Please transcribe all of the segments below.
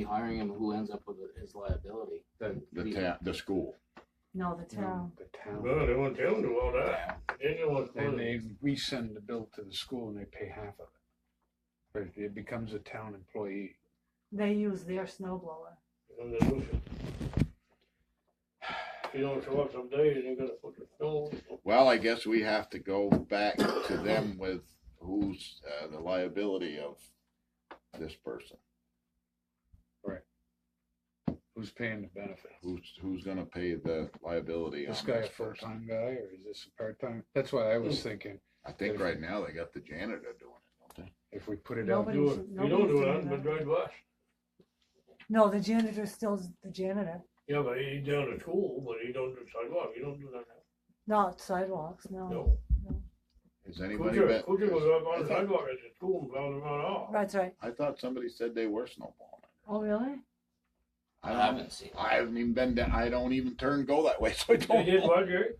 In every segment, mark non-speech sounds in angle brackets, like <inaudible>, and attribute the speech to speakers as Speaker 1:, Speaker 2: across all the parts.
Speaker 1: be hiring him, who ends up with his liability?
Speaker 2: The,
Speaker 3: the town, the school.
Speaker 4: No, the town.
Speaker 2: the
Speaker 5: Well,
Speaker 2: town.
Speaker 5: they won't tell you all that.
Speaker 1: Yeah.
Speaker 5: Then you won't tell
Speaker 2: And
Speaker 5: them.
Speaker 2: they, we send the bill to the school and they pay half of it. But it becomes a town employee.
Speaker 4: They use their snow blower.
Speaker 5: And they lose it. If you don't show up some days, you're gonna put the snow.
Speaker 3: Well, I guess we have to go back to them with who's, uh, the liability of this person.
Speaker 2: Who's paying the benefits?
Speaker 3: Who's, who's gonna pay the liability on
Speaker 2: This guy a
Speaker 3: this
Speaker 2: full-time
Speaker 3: person?
Speaker 2: guy or is this a part-time? That's why I was thinking,
Speaker 3: I think right now they got the janitor doing it, don't they?
Speaker 2: if we put it out,
Speaker 4: Nobody
Speaker 5: Do it.
Speaker 4: should-
Speaker 5: If you
Speaker 4: nobody
Speaker 5: don't do
Speaker 4: should
Speaker 5: it,
Speaker 4: do
Speaker 5: but
Speaker 4: that.
Speaker 5: drive bus.
Speaker 4: No, the janitor still's the janitor,
Speaker 5: Yeah, but he's down at school, but he don't do sidewalk, he don't do that.
Speaker 4: not sidewalks, no.
Speaker 5: No.
Speaker 3: Has anybody
Speaker 5: Kuchar,
Speaker 3: been?
Speaker 5: Kuchar was up on
Speaker 3: I
Speaker 5: the
Speaker 3: thought-
Speaker 5: sidewalk at the school and plowed him out off.
Speaker 4: That's right.
Speaker 3: I thought somebody said they were snowballing.
Speaker 4: Oh, really?
Speaker 1: I
Speaker 3: don't-
Speaker 1: haven't seen.
Speaker 3: I haven't even been down, I don't even turn go that way, <laughs> so I
Speaker 5: They
Speaker 3: don't.
Speaker 5: did
Speaker 3: know.
Speaker 5: what, Jerry?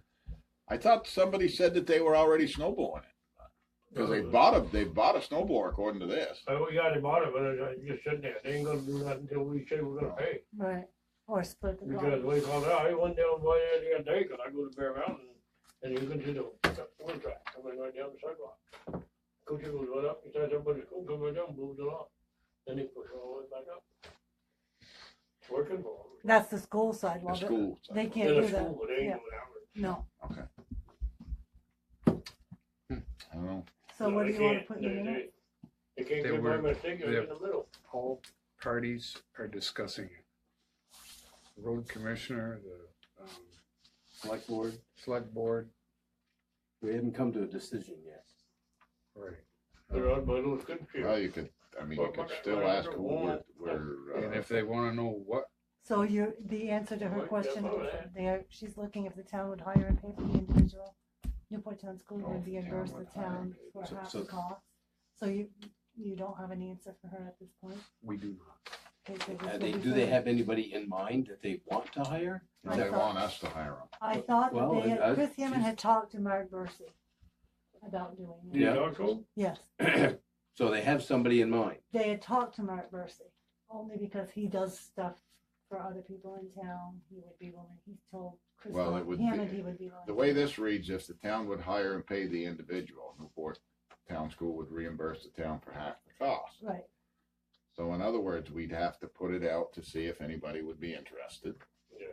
Speaker 3: I thought somebody said that they were already snowballing it, cause they
Speaker 5: Uh,
Speaker 3: bought a, they bought a snowblower according to this.
Speaker 5: I, we got him bought it, but it's just sitting there, they ain't gonna do that until we say we're gonna pay.
Speaker 4: Right. Or split the
Speaker 5: Because
Speaker 4: bill.
Speaker 5: we found out, I went down by the other day, cause I go to Bear Mountain, and you can see the one track coming right down the sidewalk. Kuchar goes right up, he says, everybody's cool, come right down, moves it off, then he pushes all the way back up. It's working for him.
Speaker 4: That's the school
Speaker 3: The
Speaker 4: sidewalk.
Speaker 3: school.
Speaker 4: They
Speaker 3: sidewalk.
Speaker 4: can't
Speaker 5: In
Speaker 4: do
Speaker 5: a school,
Speaker 4: that.
Speaker 5: but they ain't
Speaker 4: Yeah.
Speaker 5: doing that.
Speaker 4: No.
Speaker 3: I don't know.
Speaker 4: So
Speaker 5: No,
Speaker 4: what
Speaker 5: they
Speaker 4: do you want to
Speaker 5: can't.
Speaker 4: put in the
Speaker 5: They-
Speaker 4: minute?
Speaker 5: They they can't
Speaker 2: They
Speaker 5: get by
Speaker 2: were-
Speaker 5: mistake,
Speaker 2: they-
Speaker 5: it's in the middle.
Speaker 2: all parties are discussing it. Road commissioner, the, um, Select board. Select board,
Speaker 1: We haven't come to a decision yet.
Speaker 2: right.
Speaker 5: They're out by those good trees.
Speaker 3: Well, you could, I mean, you
Speaker 5: Well,
Speaker 3: could
Speaker 5: but-
Speaker 3: still
Speaker 5: but
Speaker 3: ask
Speaker 5: under
Speaker 3: who we're,
Speaker 5: warrant,
Speaker 3: we're,
Speaker 2: And
Speaker 3: uh,
Speaker 2: if they wanna know what,
Speaker 4: So you, the answer to her
Speaker 5: Right,
Speaker 4: question,
Speaker 5: that's all
Speaker 4: is
Speaker 5: right.
Speaker 4: there, she's looking if the town would hire and pay for the individual. Newport Town School
Speaker 3: Oh, if
Speaker 4: would
Speaker 3: the town
Speaker 4: reimburse
Speaker 3: would
Speaker 4: the
Speaker 3: hire
Speaker 4: town
Speaker 3: and pay.
Speaker 4: for
Speaker 1: So-
Speaker 4: half
Speaker 1: so-
Speaker 4: the cost. So you, you don't have an answer for her at this point?
Speaker 2: we do not.
Speaker 4: Okay, so this
Speaker 1: Uh,
Speaker 4: will
Speaker 1: they,
Speaker 4: be
Speaker 1: do they
Speaker 4: for-
Speaker 1: have anybody in mind that they want to hire?
Speaker 3: if they want us to hire them.
Speaker 4: I thought that
Speaker 1: Well,
Speaker 4: they
Speaker 1: I-
Speaker 4: had, Chris Hammond
Speaker 1: she's-
Speaker 4: had talked to Mark Bursey about doing
Speaker 5: You
Speaker 4: it.
Speaker 1: Yeah.
Speaker 5: talk to 'em?
Speaker 4: Yes,
Speaker 1: So they have somebody in mind.
Speaker 4: they had talked to Mark Bursey, only because he does stuff for other people in town. He would be willing, he told Chris
Speaker 3: Well, it would be-
Speaker 4: Hammond he would be willing.
Speaker 3: The way
Speaker 4: to-
Speaker 3: this reads, if the town would hire and pay the individual, Newport Town School would reimburse the town for half the cost.
Speaker 4: Right,
Speaker 3: So in other words, we'd have to put it out to see if anybody would be interested,
Speaker 5: Yeah.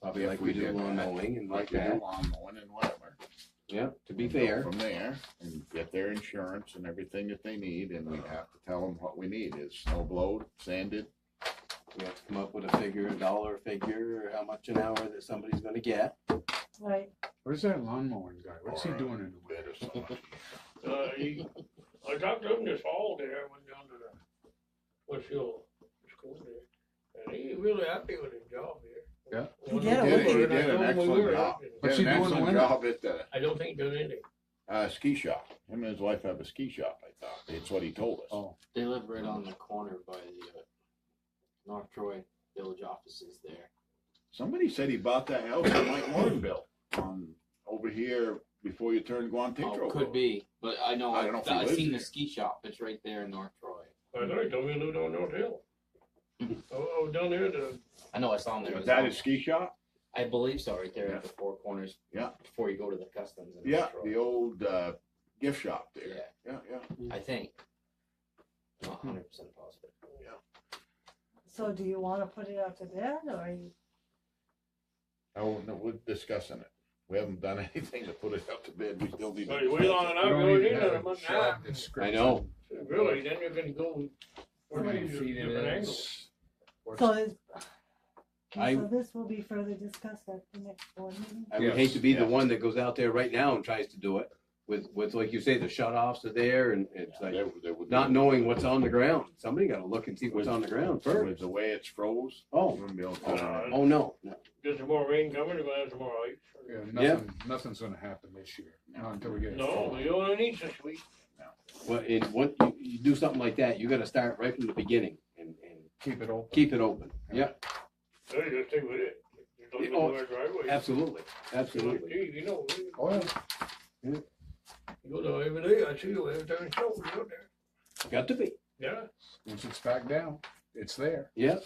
Speaker 1: Probably
Speaker 3: If
Speaker 1: like
Speaker 3: we
Speaker 1: we do
Speaker 3: did
Speaker 1: lawn
Speaker 3: that,
Speaker 1: mowing and
Speaker 3: like
Speaker 1: like
Speaker 3: you do
Speaker 1: that.
Speaker 3: on one and whatever.
Speaker 1: Yeah, to be
Speaker 3: And go
Speaker 1: fair.
Speaker 3: From there, and get their insurance and everything that they need, and we'd have to tell them what we need, is snow blowed, sanded,
Speaker 1: We have to come up with a figure, a dollar figure, or how much an hour that somebody's gonna get.
Speaker 4: right.
Speaker 2: Where's that lawnmower guy? What's he
Speaker 3: Or, uh,
Speaker 2: doing in the
Speaker 3: bed
Speaker 2: winter?
Speaker 3: or something.
Speaker 5: Uh, he, I talked to him this fall there, I went down to the, what's your school there, and he really happy with his job here.
Speaker 2: Yeah.
Speaker 4: He
Speaker 5: When
Speaker 4: did
Speaker 5: I
Speaker 4: a
Speaker 5: told
Speaker 4: wicked-
Speaker 5: him,
Speaker 3: He did
Speaker 5: I
Speaker 3: an
Speaker 5: told him we
Speaker 3: excellent
Speaker 5: were
Speaker 3: job.
Speaker 5: happy.
Speaker 2: What's
Speaker 3: Did
Speaker 2: he doing in
Speaker 3: an
Speaker 2: the
Speaker 3: excellent
Speaker 2: winter?
Speaker 3: Job at the
Speaker 5: I don't think he done anything,
Speaker 3: uh, ski shop. Him and his wife have a ski shop. I thought it's what he told us.
Speaker 2: Oh,
Speaker 1: They live right on the corner by the uh, North Troy Village offices there.
Speaker 3: Somebody said he bought that house that Mike Warren built on over here before you turn Guantanamo.
Speaker 1: Oh, could be, but I know,
Speaker 3: I don't know if
Speaker 1: I've
Speaker 3: he
Speaker 1: I've
Speaker 3: lives
Speaker 1: seen the
Speaker 3: there.
Speaker 1: ski shop, it's right there in North Troy.
Speaker 5: I know he told me to live down North Hill. I, I was down there to,
Speaker 1: I know I saw him there.
Speaker 3: But
Speaker 1: as
Speaker 3: that
Speaker 1: well.
Speaker 3: is ski shop.
Speaker 1: I believe so, right there at the four corners.
Speaker 3: Yeah.
Speaker 1: Before you go to the customs in
Speaker 3: Yeah,
Speaker 1: North Troy.
Speaker 3: the old uh, gift shop there.
Speaker 1: Yeah,
Speaker 3: Yeah, yeah.
Speaker 1: I think. Not hundred percent positive.
Speaker 4: So do you wanna put it out to bid, or you,
Speaker 3: Oh no, we're discussing it. We haven't done <laughs> anything to put it out to bid. We still need. to-
Speaker 5: but way long
Speaker 2: we
Speaker 5: enough,
Speaker 2: don't
Speaker 5: really
Speaker 2: even
Speaker 5: need
Speaker 2: have
Speaker 5: another
Speaker 2: a
Speaker 5: month and a
Speaker 2: job
Speaker 5: half.
Speaker 2: description.
Speaker 1: I know.
Speaker 5: Really, then you're gonna go.
Speaker 2: How many feet it
Speaker 5: different angles.
Speaker 2: is? What's-
Speaker 4: so is,
Speaker 1: I-
Speaker 4: okay, so this will be further discussed at the next board meeting?
Speaker 1: I would
Speaker 2: Yes,
Speaker 1: hate to be
Speaker 3: yeah.
Speaker 1: the one that goes out there right now and tries to do it with, with like you say, the shut offs are there and it's like
Speaker 3: There- there would be-
Speaker 1: not knowing what's on the ground. Somebody gotta look and see what's on the ground first.
Speaker 3: with the way it's froze. we
Speaker 1: Oh,
Speaker 3: wouldn't be able to-
Speaker 5: Uh,
Speaker 1: oh no, no.
Speaker 5: Get some more rain coming, you're gonna have some more ice.
Speaker 2: Yeah,
Speaker 1: Yeah.
Speaker 2: nothing, nothing's gonna happen this year, not until we get. it
Speaker 5: No,
Speaker 2: full.
Speaker 5: you only need this week.
Speaker 1: Well, it, what, you, you do something like that, you gotta start right from the beginning and, and
Speaker 2: Keep it open.
Speaker 1: keep it open. Yeah,
Speaker 5: So you just stay with it. You don't
Speaker 1: Yeah,
Speaker 5: go
Speaker 1: oh,
Speaker 5: to our driveway.
Speaker 1: absolutely, absolutely.
Speaker 5: Gee, You know, we-
Speaker 2: Oh, yeah.
Speaker 5: you go there every day, I see you every time you show, you out there.
Speaker 1: Got to be.
Speaker 5: Yeah,
Speaker 2: Once it's back down,
Speaker 6: it's there.
Speaker 2: Yeah.